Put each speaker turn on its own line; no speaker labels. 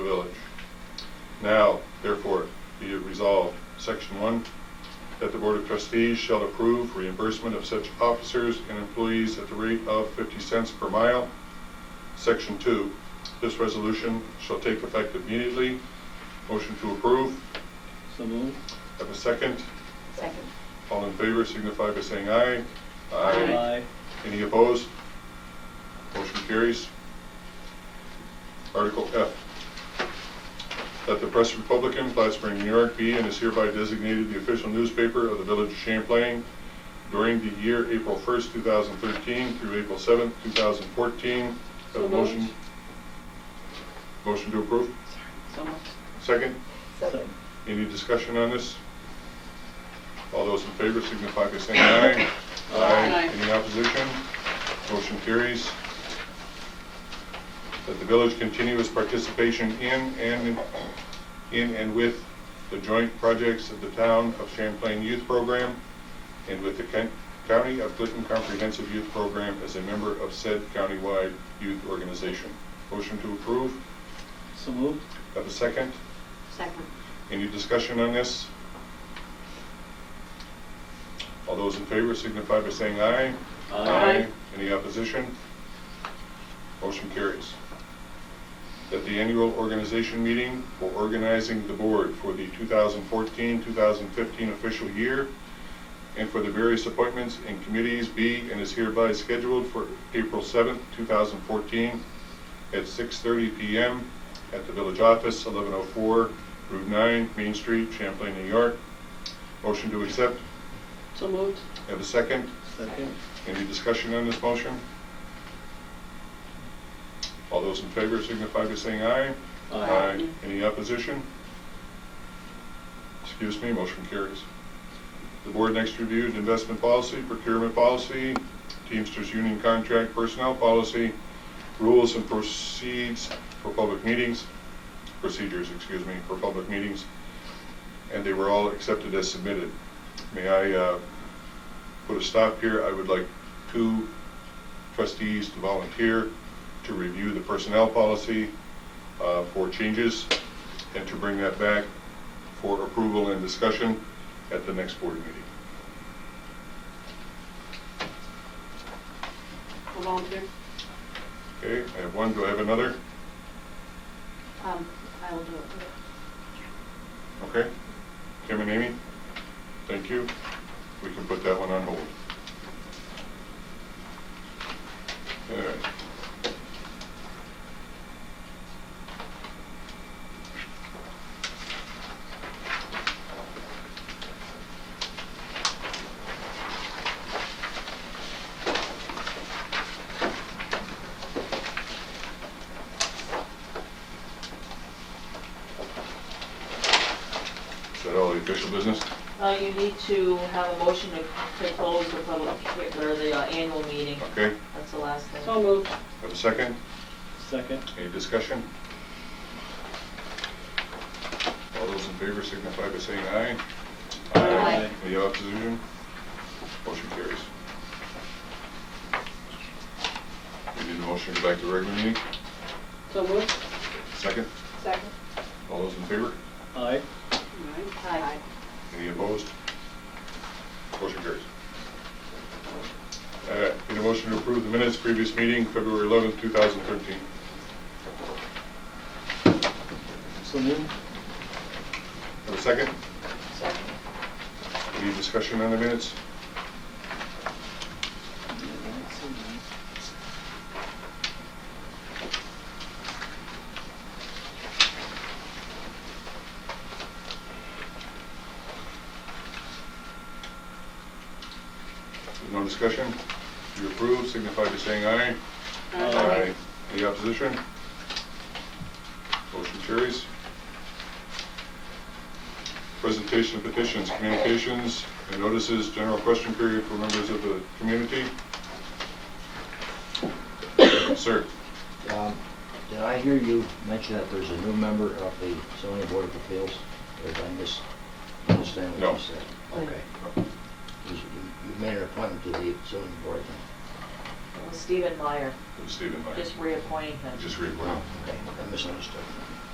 the village. Now, therefore, be it resolved, Section 1, that the Board of Trustees shall approve reimbursement of such officers and employees at the rate of 50 cents per mile. Section 2, this resolution shall take effect immediately. Motion to approve.
So moved.
Have a second.
Second.
All in favor signify by saying aye.
Aye.
Any opposed? Motion carries. Article F, that the Press Republican, Plattsburgh, New York be and is hereby designated the official newspaper of the Village of Champlain during the year April 1st, 2013 through April 7th, 2014. Have a
So
motion?
moved.
Motion to approve?
So moved.
Second?
Second.
Any discussion on this? All those in favor signify by saying aye.
Aye.
Any opposition? Motion carries. That the village continue its participation in and, in and with the joint projects of the Town of Champlain Youth Program and with the Kent- County of Clinton Comprehensive Youth Program as a member of said countywide youth organization. Motion to approve.
So moved.
Have a second?
Second.
Any discussion on this? All those in favor signify by saying aye.
Aye.
Any opposition? Motion carries. That the annual organization meeting for organizing the board for the 2014-2015 official year and for the various appointments and committees be and is hereby scheduled for April 7th, 2014 at 6:30 PM at the village office, 1104 Route 9, Main Street, Champlain, New York. Motion to accept.
So moved.
Have a second?
Second.
Any discussion on this motion? All those in favor signify by saying aye.
Aye.
Any opposition? Excuse me, motion carries. The board next reviewed investment policy, procurement policy, Teamsters Union contract, personnel policy, rules and proceeds for public meetings, procedures, excuse me, for public meetings, and they were all accepted as submitted. May I uh, put a stop here? I would like two trustees to volunteer to review the personnel policy uh, for changes and to bring that back for approval and discussion at the next board meeting.
Who volunteered?
Okay, I have one, do I have another?
Um, I will do it.
Okay. Kim and Amy, thank you. We can put that one on hold. All right. Is that all the official business?
Uh, you need to have a motion to, to close the public, hea- or the uh, annual meeting.
Okay,
That's the last thing.
So moved.
have a second?
Second.
Any discussion? All those in favor signify by saying aye.
Aye.
Any opposition? Motion carries. We need a motion to go back to regular meeting.
So moved.
Second,
Second.
all those in favor?
Aye.
Aye.
Any opposed? Motion carries. All right, need a motion to approve the minutes previous meeting, February 11th, 2013.
So moved.
Have a second?
Second.
Any discussion on the minutes? No discussion? You approve, signify by saying aye.
Aye.
Any opposition? Motion carries. Presentation of petitions, communications, and notices, general question period for members of the community. Sir,
Um, Did I hear you mention that there's a new member of the zoning board of appeals? Or did I misunderstand
No.
what you said? Okay. You you made an appointment to the zoning board then?
It was Stephen Meyer,
Stephen Meyer.
just reappointing him.
Just reappoint.
Okay, I misunderstood.